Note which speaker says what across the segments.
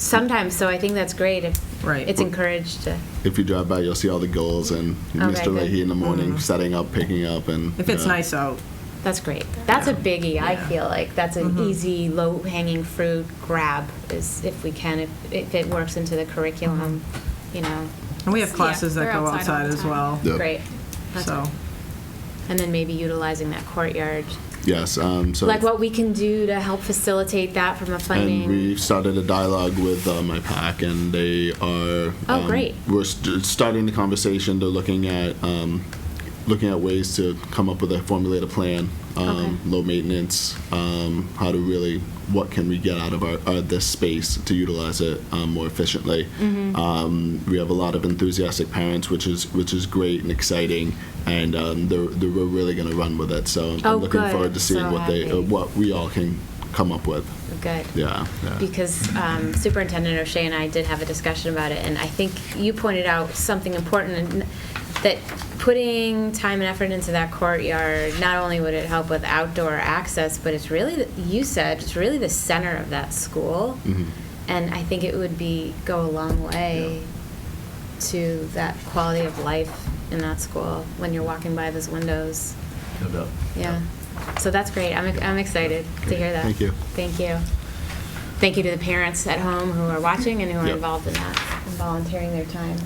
Speaker 1: sometimes, so I think that's great if
Speaker 2: Right.
Speaker 1: it's encouraged to,
Speaker 3: If you drive by, you'll see all the goals and
Speaker 1: Okay,
Speaker 3: Mr.
Speaker 1: good. Mm.
Speaker 3: Leahy in the morning setting up, picking up, and uh,
Speaker 2: If it's
Speaker 3: yeah.
Speaker 2: nice out,
Speaker 1: that's great. That's a
Speaker 2: Yeah.
Speaker 1: biggie, I
Speaker 2: Yeah. Mm-hmm.
Speaker 1: feel like. That's an easy, low-hanging fruit grab is if we can, if, if it works into the curriculum,
Speaker 2: Mm-hmm.
Speaker 1: you know,
Speaker 2: and we have classes that
Speaker 4: they're
Speaker 2: go
Speaker 4: outside
Speaker 2: outside
Speaker 4: all the
Speaker 2: as
Speaker 4: time.
Speaker 2: well,
Speaker 3: Yep.
Speaker 1: great. That's-
Speaker 2: so.
Speaker 1: And then maybe utilizing that courtyard,
Speaker 3: Yes, um, so.
Speaker 1: like what we can do to help facilitate that from a
Speaker 3: And
Speaker 1: funding.
Speaker 3: we started a dialogue with uh, my pack, and they are.
Speaker 1: Oh,
Speaker 3: um,
Speaker 1: great.
Speaker 3: We're st- starting the conversation. They're looking at um, looking at ways to come up with a formulate a plan. Um,
Speaker 1: Okay.
Speaker 3: Low maintenance. Um, how to really what can we get out of our uh, this space to utilize it um, more efficiently.
Speaker 1: Mm-hmm.
Speaker 3: Um, we have a lot of enthusiastic parents, which is which is great and exciting, and um, they're, they're, we're really going to run with it. So I'm
Speaker 1: Oh,
Speaker 3: looking
Speaker 1: good.
Speaker 3: forward to seeing
Speaker 1: So
Speaker 3: what they uh,
Speaker 1: happy.
Speaker 3: what we all can come up with.
Speaker 1: Good.
Speaker 3: Yeah. yeah.
Speaker 1: because um, Superintendent O'Shea and I did have a discussion about it, and I think you pointed out something important, and that putting time and effort into that courtyard, not only would it help with outdoor access, but it's really, the- you said, it's really the center of that school. And I think it would be, go a long way to that quality of life in that school, when you're walking by those windows.
Speaker 5: No doubt.
Speaker 1: Yeah, so that's great. I'm, I'm excited to hear that.
Speaker 3: Thank you.
Speaker 1: Thank you. Thank you to the parents at home who are watching and who are
Speaker 3: Yep.
Speaker 1: involved in that and volunteering their time.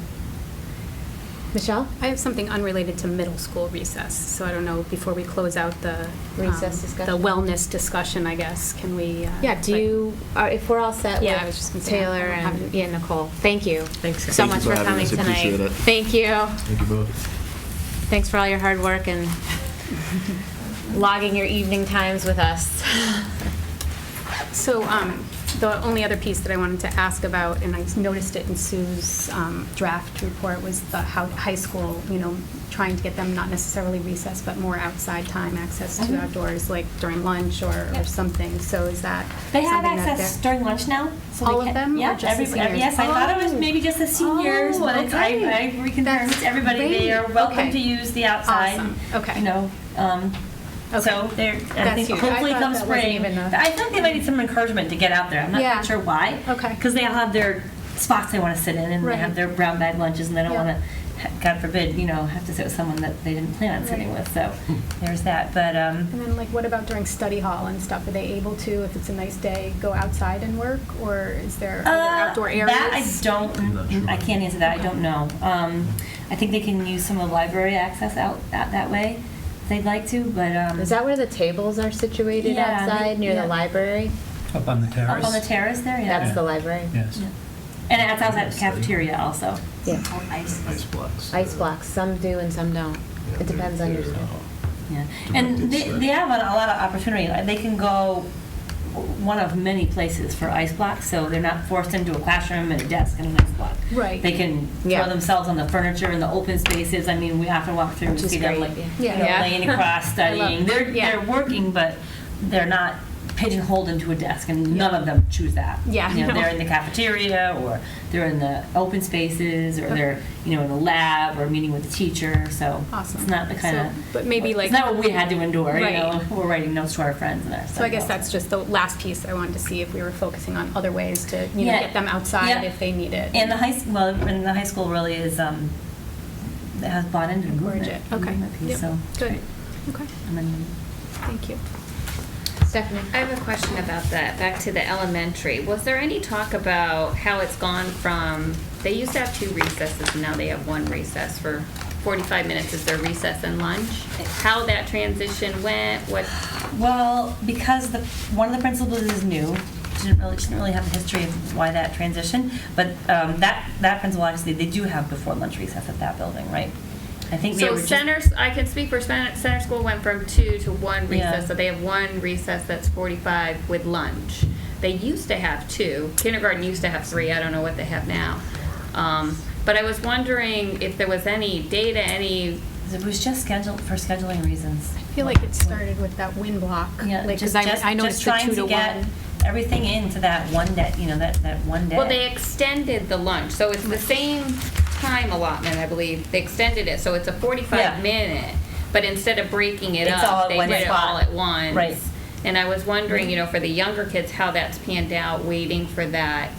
Speaker 1: Michelle?
Speaker 4: I have something unrelated to middle school recess, so I don't know, before we close out the. um,
Speaker 1: Recess discussion?
Speaker 4: The wellness discussion, I guess, can we? uh,
Speaker 1: Yeah, do
Speaker 4: like-
Speaker 1: you, are- if we're all set
Speaker 4: Yeah, I was just gonna
Speaker 1: with
Speaker 4: say,
Speaker 1: Taylor
Speaker 4: I don't have
Speaker 1: and
Speaker 4: any-
Speaker 1: yeah, Nicole, thank you.
Speaker 2: Thanks, guys.
Speaker 1: So
Speaker 3: Thank you
Speaker 1: much
Speaker 3: for
Speaker 1: for coming
Speaker 3: having us.
Speaker 1: tonight.
Speaker 3: Appreciate it.
Speaker 1: Thank you.
Speaker 5: Thank you both.
Speaker 1: Thanks for all your hard work and logging your evening times with us.
Speaker 4: So um, the only other piece that I wanted to ask about, and I noticed it in Sue's um, draft report, was the how high school, you know, trying to get them not necessarily recess, but more outside time, access
Speaker 1: Mm-hmm.
Speaker 4: to outdoors, like during lunch or or
Speaker 6: Yep.
Speaker 4: something. So is that
Speaker 6: They
Speaker 4: something
Speaker 6: have
Speaker 4: that
Speaker 6: access
Speaker 4: they're-
Speaker 6: during lunch now. So
Speaker 4: All
Speaker 6: they
Speaker 4: of
Speaker 6: ca-
Speaker 4: them or
Speaker 6: Yeah,
Speaker 4: just the
Speaker 6: every-
Speaker 4: seniors?
Speaker 6: Yes, I thought it was maybe just the seniors,
Speaker 4: Oh,
Speaker 6: but it's, I,
Speaker 4: okay.
Speaker 6: I reconfirmed
Speaker 4: That's
Speaker 6: it's everybody. They
Speaker 4: great.
Speaker 6: are welcome
Speaker 4: Okay.
Speaker 6: to use the outside.
Speaker 4: Awesome. Okay.
Speaker 6: You know, um,
Speaker 4: Okay.
Speaker 6: so they're, I
Speaker 4: That's
Speaker 6: think
Speaker 4: huge. I
Speaker 6: hopefully
Speaker 4: thought
Speaker 6: come
Speaker 4: that wasn't
Speaker 6: spring.
Speaker 4: even a-
Speaker 6: I think they might need some encouragement to get out there. I'm not
Speaker 4: Yeah.
Speaker 6: sure why.
Speaker 4: Okay.
Speaker 6: Because they all have their spots they want to sit in and
Speaker 4: Right.
Speaker 6: they have their brown bag lunches and they don't
Speaker 4: Yeah.
Speaker 6: want to, God forbid, you know, have to sit with someone that they didn't plan on sitting with. So there's that. But, um,
Speaker 4: And then like, what about during study hall and stuff? Are they able to, if it's a nice day, go outside and work? Or is there other
Speaker 6: Uh,
Speaker 4: outdoor areas?
Speaker 6: That I
Speaker 5: I'm not
Speaker 6: don't,
Speaker 5: sure.
Speaker 6: I can't answer that, I don't know. Um, I think they can use some of the library access out, out that way, if they'd like to, but, um.
Speaker 1: Is that where the tables are situated
Speaker 6: Yeah, they-
Speaker 1: outside, near
Speaker 6: yeah.
Speaker 1: the library?
Speaker 5: Up on the
Speaker 6: Up
Speaker 5: terrace?
Speaker 6: on the terrace there, yeah.
Speaker 1: That's the library?
Speaker 5: Yes.
Speaker 6: Yeah. And that's outside the cafeteria also.
Speaker 1: Yeah.
Speaker 5: Ice blocks.
Speaker 1: Ice blocks, some do and some don't. It depends on your schedule.
Speaker 6: Yeah, and they, they have a a lot of opportunity, Like, they can go one of many places for ice blocks, so they're not forced into a classroom and a desk and an ice block.
Speaker 4: Right.
Speaker 6: They can
Speaker 1: Yeah.
Speaker 6: throw themselves on the furniture and the open spaces, I mean, we often walk through and
Speaker 1: Which is
Speaker 6: see them
Speaker 1: great,
Speaker 6: like, you
Speaker 1: yeah.
Speaker 6: know,
Speaker 1: Yeah.
Speaker 6: laying across,
Speaker 4: I love-
Speaker 6: studying, they're,
Speaker 4: yeah.
Speaker 6: they're working, but they're not pigeonholed into a desk, and none of them choose that.
Speaker 4: Yeah,
Speaker 6: You know,
Speaker 4: no.
Speaker 6: they're in the cafeteria, or they're in the open spaces, or they're, you know, in the lab, or meeting with the teacher, so.
Speaker 4: Awesome.
Speaker 6: It's not the kind
Speaker 4: So-
Speaker 6: of.
Speaker 4: but maybe like-
Speaker 6: It's not what we had to endure, you
Speaker 4: Right.
Speaker 6: know, we're writing notes to our friends and that
Speaker 4: So I guess that's just the last piece I wanted to see if we were focusing on other ways to, you know,
Speaker 6: Yeah.
Speaker 4: get them outside
Speaker 6: Yeah.
Speaker 4: if they need it.
Speaker 6: And the high, s- well, and the high school really is, um, it has bought into the
Speaker 4: Encourage
Speaker 6: movement.
Speaker 4: it.
Speaker 6: the
Speaker 4: Okay.
Speaker 6: movement piece,
Speaker 4: Yep.
Speaker 6: So.
Speaker 4: Good. Okay,
Speaker 6: And then-
Speaker 4: thank you.
Speaker 1: Stephanie?
Speaker 7: I have a question about that, back to the elementary. Was there any talk about how it's gone from, they used to have two recesses, and now they have one recess for 45 minutes is their recess and lunch? How that transition went, what,
Speaker 6: Well, because the, one of the principals is new, she didn't really, she didn't really have a history of why that transition, but um, that, that principal actually, they do have before lunch recess at that building, right? I think they
Speaker 7: so
Speaker 6: were just.
Speaker 7: centers, I can speak for center, center school went from two to one
Speaker 6: Yeah.
Speaker 7: recess. So they have one recess that's 45 with lunch. They used to have two. Kindergarten used to have three. I don't know what they have now. Um, But I was wondering if there was any data, any
Speaker 6: It was just scheduled, for scheduling reasons.
Speaker 4: I feel like it started with that wind block.
Speaker 6: Yeah,
Speaker 4: like, 'cause
Speaker 6: just,
Speaker 4: I-
Speaker 6: just,
Speaker 4: I
Speaker 6: just
Speaker 4: noticed the
Speaker 6: trying
Speaker 4: two
Speaker 6: to, get
Speaker 4: one.
Speaker 6: everything into that one day, you know, that, that one day.
Speaker 7: Well, they extended the lunch, so it's the same time allotment, I believe. They extended it, so it's a
Speaker 6: Yeah.
Speaker 7: forty-five minute, but instead of breaking it
Speaker 6: It's all at
Speaker 7: up, they
Speaker 6: one
Speaker 7: did it
Speaker 6: spot.
Speaker 7: all at once.
Speaker 6: Right. Mm-hmm.
Speaker 7: And I was wondering, you know, for the younger kids, how that's panned out, waiting for that